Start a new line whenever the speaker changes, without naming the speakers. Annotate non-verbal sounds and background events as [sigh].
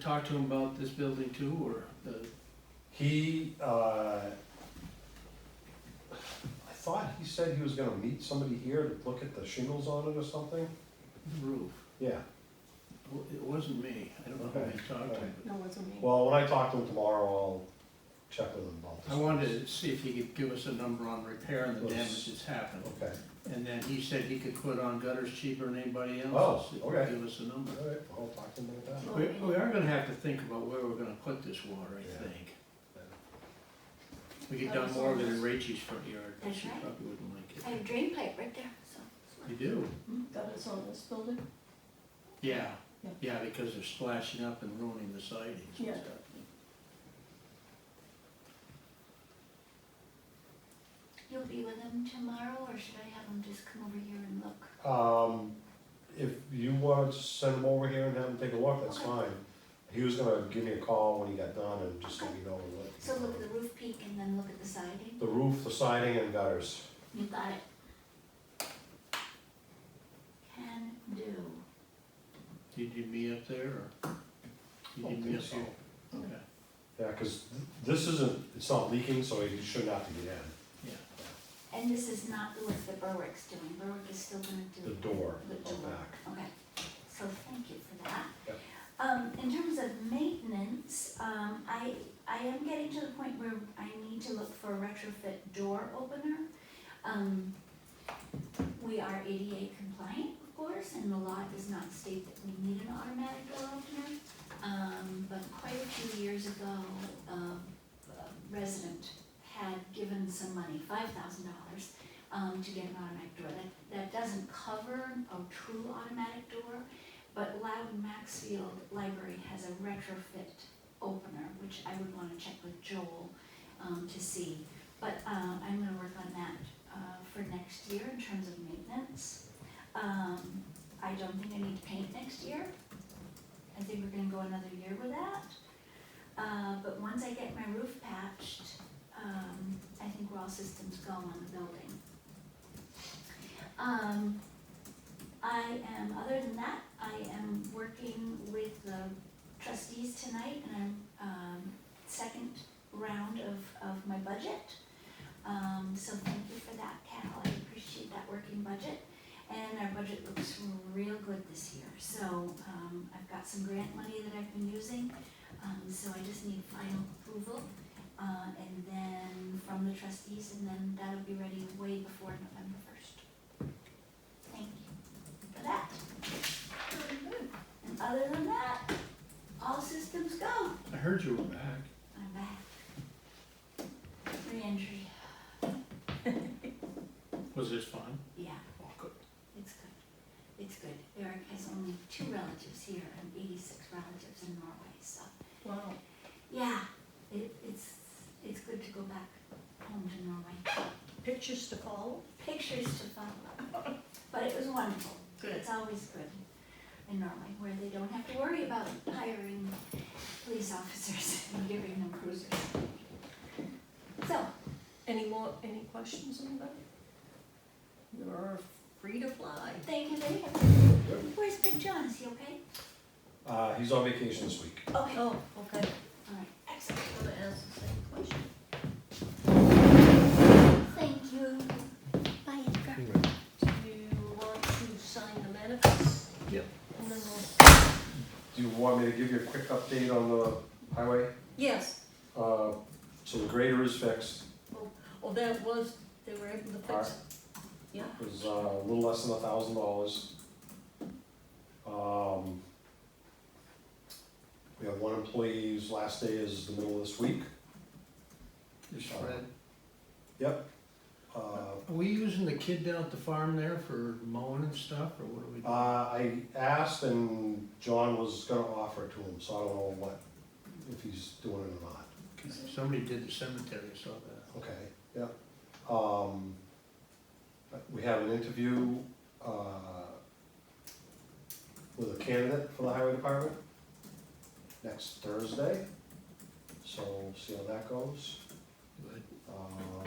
talked to him about this building too, or the,
He, uh, I thought he said he was gonna meet somebody here to look at the shingles on it or something.
the roof?
Yeah,
Well, It wasn't me, I don't know who
Okay,
he talked to,
alright.
but
No, it wasn't me.
well, when I talk to him tomorrow, I'll check with him about this.
I wanted to see if he could give us a number on repair and the damage that's happened.
Okay,
And then he said he could put on gutters cheaper than anybody
Oh,
else, if he
okay.
give us a number.
all right, I'll talk to him about that.
We, we are gonna have to think about where we're gonna put this water, I think. We could done more of it in Rachel's front yard, but she probably wouldn't
I
like
have
it.
a drain pipe right there, so. it's fine.
You do?
Mm-hmm. That is on this building?
Yeah,
Yeah.
yeah, because they're splashing up and ruining the sidings and
Yeah.
stuff.
You'll be with them tomorrow, or should I have them just come over here and look?
Um, if you want to send him over here and have him take a look, that's
Okay.
fine. He was gonna give me a call when he got done and just let me know what.
So look at the roof peak and then look at the siding?
The roof, the siding and gutters.
You got it. Can do.
Do you need me up there, or? You
Don't
need me
think
up
so.
here? Okay,
Yeah, cause th- this isn't, it's not leaking, so he shouldn't have to get in,
yeah,
And this is not what the Berwick's doing, Berwick is still gonna do.
the door,
The
out
door,
back.
okay, so thank you for that.
Yep.
Um, in terms of maintenance, um, I, I am getting to the point where I need to look for a retrofit door opener. Um, we are ADA compliant, of course, and the law does not state that we need an automatic door opener. Um, but quite a few years ago, um, a resident had given some money, five thousand dollars, um, to get an automatic door. That, that doesn't cover a true automatic door, but Loudon Maxfield Library has a retrofit opener, which I would wanna check with Joel, um, to see. But, uh, I'm gonna work on that, uh, for next year in terms of maintenance. Um, I don't think I need to paint next year. I think we're gonna go another year with that. Uh, but once I get my roof patched, um, I think we're all systems go on the building. Um, I am, other than that, I am working with the trustees tonight and I'm, um, second round of, of my budget. Um, so thank you for that, Cal, I appreciate that working budget. And our budget looks real good this year, so, um, I've got some grant money that I've been using. Um, so I just need final approval, uh, and then from the trustees, and then that'll be ready way before November first. Thank you for that. And other than that, all systems go.
I heard you were back.
I'm back. Reentry,
Was this fun?
yeah,
Oh, good.
it's good. It's good. Eric has only two relatives here and eighty-six relatives in Norway, so,
Wow.
yeah, it, it's, it's good to go back home to Norway.
Pictures to follow?
pictures to follow. But it was wonderful. It's always good in Norway, where they don't have to worry about hiring police officers [laughs] and giving them cruisers. So,
Any more, any questions on that? You're free to fly.
thank you very much. Where's Big John? Is he okay?
Uh, he's on vacation this week.
Okay, all
Oh, okay,
right, excellent.
I'm gonna ask the same question.
Thank you. Bye, Edgar.
Do you want to sign the manifest?
Yep.
And then we'll,
Do you want me to give you a quick update on the highway?
yes,
Uh, so the grader is fixed,
oh, that was, they were able to
Alright.
fix it. Yeah,
it was uh, a little less than a thousand dollars. Um, we have one employee's last day is the middle of this week.
There's Fred.
Uh,
Are we using the kid down at the farm there for mowing and stuff, or what are we
Uh,
doing?
I asked and John was gonna offer it to him, so I don't know what, if he's doing it or not.
Somebody did the cemetery, I saw that.
Okay, yeah. Um, we have an interview, uh, with a candidate for the highway department next Thursday. So we'll see how that goes.
Good.
Um,